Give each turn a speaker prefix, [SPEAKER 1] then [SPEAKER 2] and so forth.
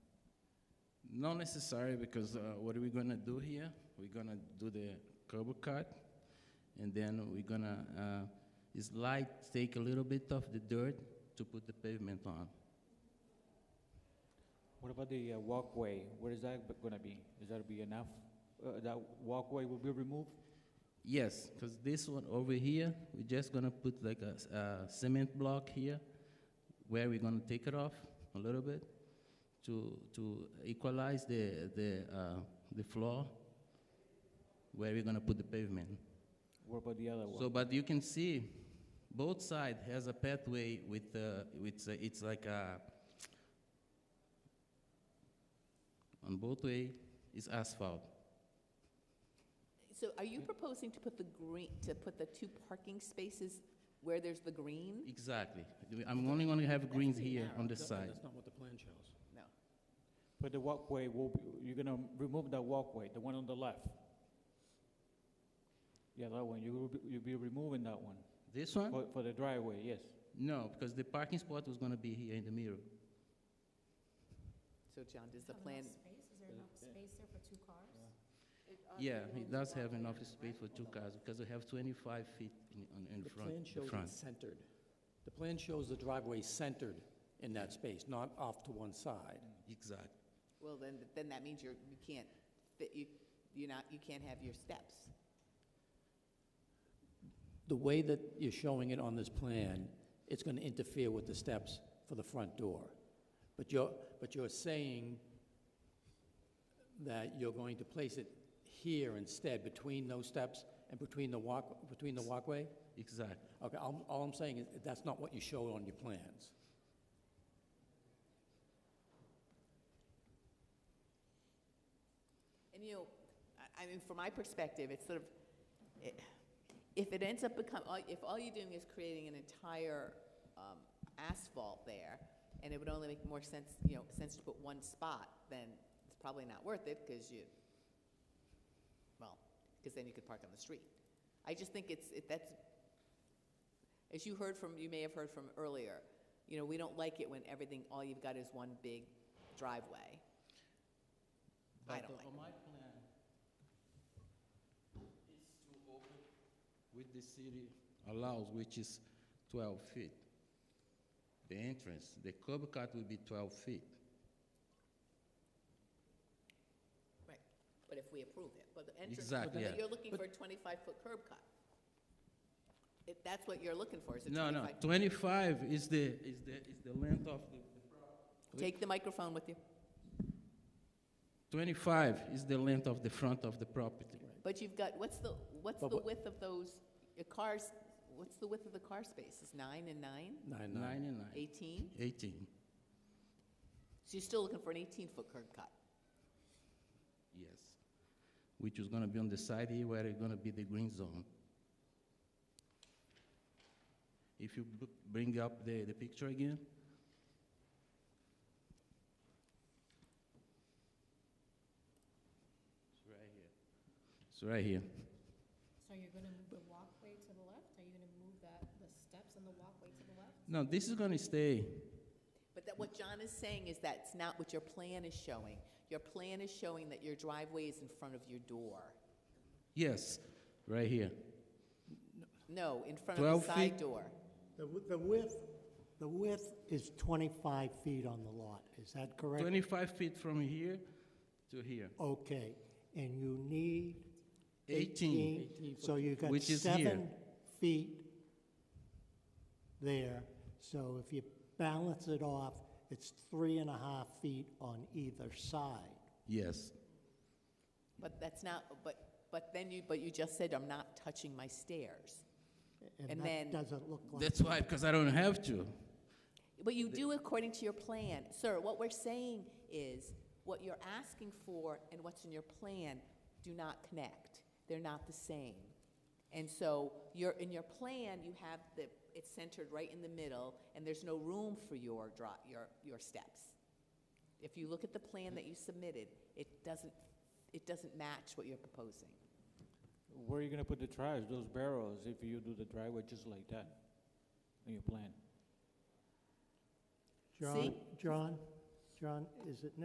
[SPEAKER 1] Not necessary because uh, what are we gonna do here? We're gonna do the curb cut, and then we're gonna uh, is light take a little bit of the dirt to put the pavement on.
[SPEAKER 2] What about the uh, walkway? Where is that b- gonna be? Is that be enough? Uh, That walkway will be removed?
[SPEAKER 1] Yes, because this one over here, we're just gonna put like a, s- a cement block here, where we're gonna take it off a little bit to to equalize the the uh, the floor where we're gonna put the pavement.
[SPEAKER 2] What about the other
[SPEAKER 1] So,
[SPEAKER 2] one?
[SPEAKER 1] but you can see, both side has a pathway with uh, with uh, it's like a on both way is asphalt.
[SPEAKER 3] So are you proposing to put the green, to put the two parking spaces where there's the green?
[SPEAKER 1] Exactly. I'm only gonna have greens
[SPEAKER 3] pretty
[SPEAKER 1] here on
[SPEAKER 3] narrow.
[SPEAKER 1] this side.
[SPEAKER 4] That's not what the plan shows.
[SPEAKER 3] No.
[SPEAKER 2] But the walkway will, be you're gonna remove that walkway, the one on the left? Yeah, that one, you will, be- you'll be removing that one,
[SPEAKER 1] This one?
[SPEAKER 2] for, for the driveway, yes.
[SPEAKER 1] No, because the parking spot was gonna be here in the mirror.
[SPEAKER 3] So John, does the plan,
[SPEAKER 5] Is there enough space there for two cars?
[SPEAKER 1] Yeah, it does have enough space for two cars, because we have twenty-five feet in, on- in
[SPEAKER 4] The plan
[SPEAKER 1] front, the
[SPEAKER 4] shows
[SPEAKER 1] front.
[SPEAKER 4] it centered. The plan shows the driveway centered in that space, not off to one side.
[SPEAKER 1] Exactly.
[SPEAKER 3] well, then, then that means you're, you can't fit, you, you're not, you can't have your steps.
[SPEAKER 4] The way that you're showing it on this plan, it's going to interfere with the steps for the front door. But you're, but you're saying that you're going to place it here instead, between those steps and between the walk, between the walkway?
[SPEAKER 1] Exactly.
[SPEAKER 4] Okay, all, all I'm saying is, that's not what you showed on your plans.
[SPEAKER 3] And you know, I, I mean, from my perspective, it's sort of, it, if it ends up become, all- if all you're doing is creating an entire um, asphalt there, and it would only make more sense, you know, sense to put one spot, then it's probably not worth it because you, well, because then you could park on the street. I just think it's, it, that's, as you heard from, you may have heard from earlier, you know, we don't like it when everything, all you've got is one big driveway. I
[SPEAKER 1] But
[SPEAKER 3] don't like
[SPEAKER 1] On my plan, it's too open with the city allows, which is twelve feet. The entrance, the curb cut will be twelve feet.
[SPEAKER 3] Right, but if we approve it, but the entrance.
[SPEAKER 1] Exactly,
[SPEAKER 3] but
[SPEAKER 1] yeah.
[SPEAKER 3] You're looking for a twenty-five-foot curb cut. If that's what you're looking for, is a
[SPEAKER 1] No, no,
[SPEAKER 3] twenty-five.
[SPEAKER 1] twenty-five is the, is the, is the length of the,
[SPEAKER 3] Take the microphone with you,
[SPEAKER 1] twenty-five is the length of the front of the property.
[SPEAKER 3] but you've got, what's the, what's
[SPEAKER 4] But
[SPEAKER 3] the
[SPEAKER 4] what-
[SPEAKER 3] width of those, your cars, what's the width of the car spaces, nine and nine?
[SPEAKER 4] Nine, nine.
[SPEAKER 1] Nine and nine,
[SPEAKER 3] Eighteen?
[SPEAKER 1] eighteen,
[SPEAKER 3] So you're still looking for an eighteen-foot curb cut?
[SPEAKER 1] yes. Which is gonna be on the side here where it's gonna be the green zone. If you b- bring up the, the picture again, it's right here.
[SPEAKER 5] So you're gonna move the walkway to the left? Are you gonna move that, the steps and the walkway to the left?
[SPEAKER 1] No, this is gonna stay,
[SPEAKER 3] But that, what John is saying is that's not what your plan is showing. Your plan is showing that your driveway is in front of your door.
[SPEAKER 1] yes, right here.
[SPEAKER 3] No, in front of
[SPEAKER 1] 12 feet?
[SPEAKER 3] the side door.
[SPEAKER 6] The wi- the width, the width is 25 feet on the lot, is that correct?
[SPEAKER 1] Twenty-five feet from here to here,
[SPEAKER 6] Okay, and you need
[SPEAKER 1] eighteen.
[SPEAKER 6] 18, so you got
[SPEAKER 1] Which is here.
[SPEAKER 6] seven feet there. So if you balance it off, it's three and a half feet on either side.
[SPEAKER 1] Yes,
[SPEAKER 3] But that's not, but, but then you, but you just said, I'm not touching my stairs. And
[SPEAKER 6] And
[SPEAKER 3] then-
[SPEAKER 6] that doesn't look like.
[SPEAKER 1] that's why, because I don't have to.
[SPEAKER 3] But you do according to your plan. Sir, what we're saying is, what you're asking for and what's in your plan do not connect. They're not the same. And so you're, in your plan, you have the, it's centered right in the middle, and there's no room for your draw, your, your steps. If you look at the plan that you submitted, it doesn't, it doesn't match what you're proposing.
[SPEAKER 2] Where are you gonna put the trash, those barrels, if you do the driveway just like that? In your plan?
[SPEAKER 6] John, John, John, is it